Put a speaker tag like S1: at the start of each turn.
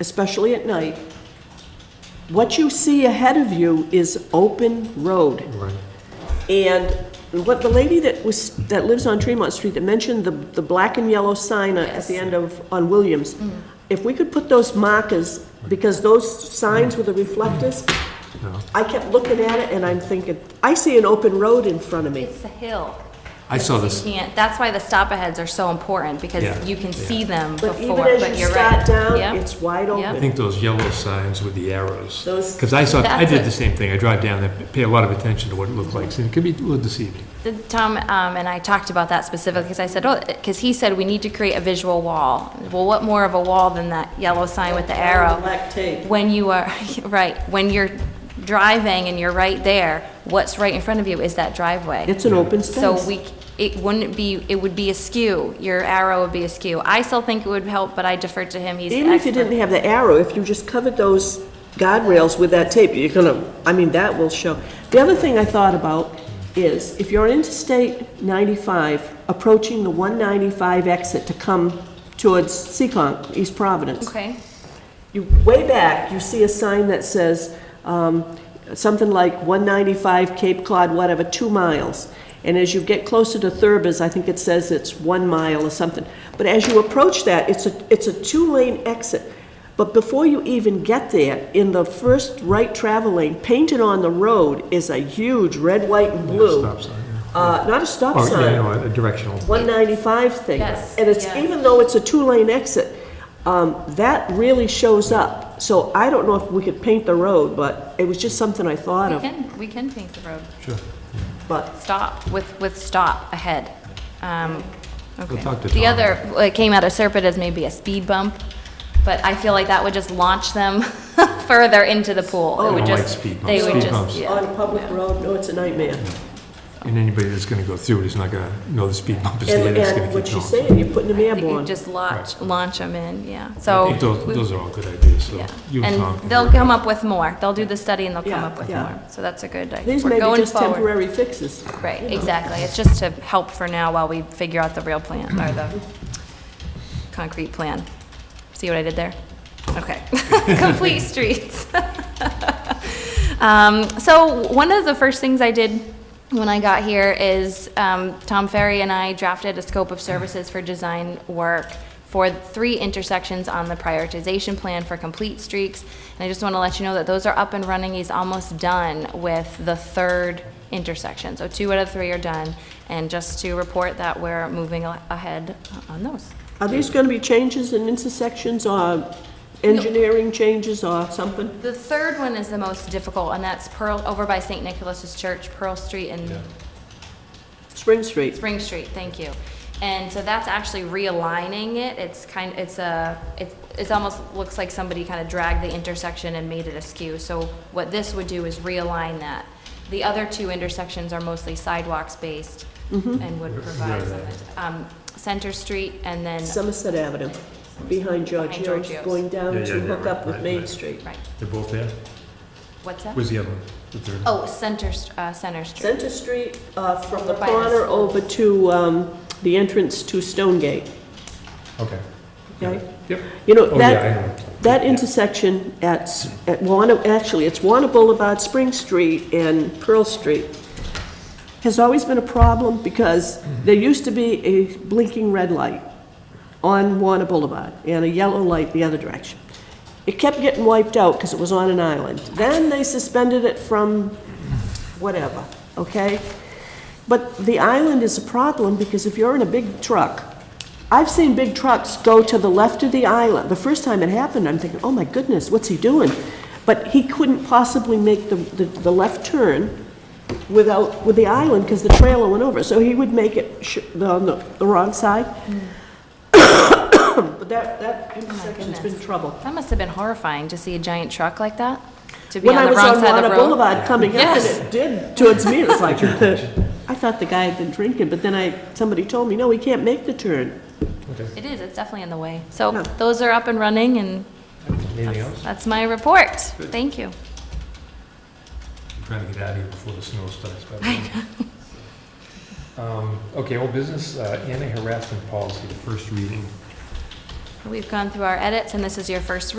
S1: especially at night, what you see ahead of you is open road.
S2: Right.
S1: And what the lady that was, that lives on Tremont Street that mentioned the, the black and yellow sign at the end of, on Williams,
S3: Mm.
S1: if we could put those markers, because those signs with the reflectors,
S2: No.
S1: I kept looking at it and I'm thinking, I see an open road in front of me.
S3: It's the hill.
S2: I saw
S3: You
S2: this.
S3: can't- that's why the stop aheads are so important,
S2: Yeah,
S3: because you can
S2: yeah.
S3: see them before,
S1: But
S3: but
S1: even
S3: you're right.
S1: as you start down,
S3: Yep.
S1: it's wide
S2: I
S1: open.
S2: think those yellow signs with the arrows.
S1: Those-
S2: Because I saw, I
S3: That's
S2: did
S3: it.
S2: the same thing. I drive down there, pay a lot of attention to what it looked like. So it could be a little deceiving.
S3: The- Tom um, and I talked about that specifically, because I said, oh, because he said we need to create a visual wall. Well, what more of a wall than that yellow sign with the arrow?
S1: Black tape.
S3: When you are, right, when you're driving and you're right there, what's right in front of you is that driveway.
S1: It's an open space.
S3: So we, c- it wouldn't be, it would be askew, your arrow would be askew. I still think it would help, but I defer to him, he's the
S1: Even if you didn't
S3: expert.
S1: have the arrow, if you just covered those guardrails with that tape, you're gonna, I mean, that will show. The other thing I thought about is, if you're on Interstate 95, approaching the 195 exit to come towards Seccong, East Providence,
S3: Okay,
S1: you, way back, you see a sign that says, um, something like 195 Cape Cod, whatever, two miles. And as you get closer to Thurbers, I think it says it's one mile or something. But as you approach that, it's a, it's a two-lane exit. But before you even get there, in the first right travel lane, painted on the road is a huge red, white, and
S2: Yeah,
S1: blue.
S2: Stop sign. yeah.
S1: Uh, not a stop
S2: Or, yeah,
S1: sign.
S2: no, a directional.
S1: 195 thing.
S3: Yes,
S1: And it's,
S3: yeah.
S1: even though it's a two-lane exit, um, that really shows up. So I don't know if we could paint the road, but it was just something I thought
S3: we
S1: of.
S3: can, we can paint the road.
S2: Sure.
S1: But
S3: Stop, with, with stop ahead. Um, okay.
S2: talk to
S3: The
S2: Tom.
S3: other, what came out of Serpent is maybe a speed bump, but I feel like that would just launch them further into the pool. It
S2: Oh, I
S3: would
S2: don't like
S3: just,
S2: speed
S3: they
S2: bumps. Speed
S3: would just,
S2: bumps.
S1: on
S3: yeah.
S1: a public road, no, it's a nightmare.
S2: And anybody that's going to go through it is not going to know the speed bump is there.
S1: And,
S2: It's going
S1: and
S2: to
S1: what
S2: keep
S1: you're
S2: going.
S1: saying, you're putting them
S3: You
S1: airborne.
S3: just launch, launch them in, yeah,
S2: I
S3: so.
S2: think those,
S3: we-
S2: those are all good ideas, so
S3: yeah.
S2: you and Tom.
S3: And
S2: can
S3: they'll
S2: work it
S3: come
S2: out.
S3: up with more. They'll do the study and they'll come
S1: Yeah,
S3: up with
S1: yeah.
S3: more. So that's a good idea.
S1: These
S3: We're
S1: may be
S3: going
S1: just
S3: forward.
S1: temporary fixes.
S3: Right, exactly. It's just to help for now while we figure out the real plan, or the concrete plan. See what I did there? Okay. Complete streets. Um, so one of the first things I did when I got here is, um, Tom Ferry and I drafted a scope of services for design work for three intersections on the prioritization plan for complete streaks. And I just want to let you know that those are up and running. He's almost done with the third intersection. So two out of three are done. And just to report that we're moving a- ahead on those.
S1: Are these gonna be changes in intersections or engineering changes or something?
S3: The third one is the most difficult, and that's Pearl, over by St. Nicholas's Church, Pearl Street and
S1: Spring Street.
S3: Spring Street, thank you. And so that's actually realigning it, it's kind, it's a, it's, it's almost looks like somebody kind of dragged the intersection and made it askew. So what this would do is realign that. The other two intersections are mostly sidewalks based
S1: Mm-hmm.
S3: and would provide some, um, Center Street and then,
S1: Somerset Avenue, behind Georgios,
S3: Georgios.
S1: going down
S2: Yeah, yeah,
S1: to
S2: yeah,
S1: hook up
S2: right,
S1: with
S2: right,
S1: Main
S2: right.
S1: Street.
S3: right,
S2: They're both there?
S3: what's that?
S2: Where's the other one? The third?
S3: Oh, Center, St- uh, Center Street.
S1: Center Street, uh, from the
S3: Over by the
S1: corner
S3: school.
S1: over to, um, the entrance to Stonegate,
S2: Okay.
S1: okay?
S2: Yep.
S1: You know,
S2: Oh,
S1: that,
S2: yeah, I know.
S1: that intersection at, S- at Warner, actually, it's Warner Boulevard, Spring Street, and Pearl Street, has always been a problem because there used to be a blinking red light on Warner Boulevard and a yellow light the other direction. It kept getting wiped out because it was on an island. Then they suspended it from whatever, okay? But the island is a problem because if you're in a big truck, I've seen big trucks go to the left of the island. The first time it happened, I'm thinking, oh my goodness, what's he doing? But he couldn't possibly make the, the, the left turn without, with the island because the trailer went over. So he would make it sh- the- on the, the wrong side. But that, that intersection's been
S3: goodness.
S1: trouble.
S3: That must have been horrifying to see a giant truck like that, to be
S1: When
S3: on
S1: I
S3: the
S1: was
S3: wrong
S1: on
S3: side
S1: Warner
S3: of the road.
S1: Boulevard coming up, and
S3: Yes.
S1: it did towards me, it was like, I thought the guy had been drinking, but then I, somebody told me, no, he can't make the turn.
S3: It is, it's definitely in the way. So
S1: Yeah.
S3: those are up and running, and
S2: Anything else?
S3: that's my report. Thank you.
S2: I'm trying to get out of here before the snow starts. but- Um, Okay, old business, uh, anti-harassment policy, the first reading.
S3: We've gone through our edits, and this is your first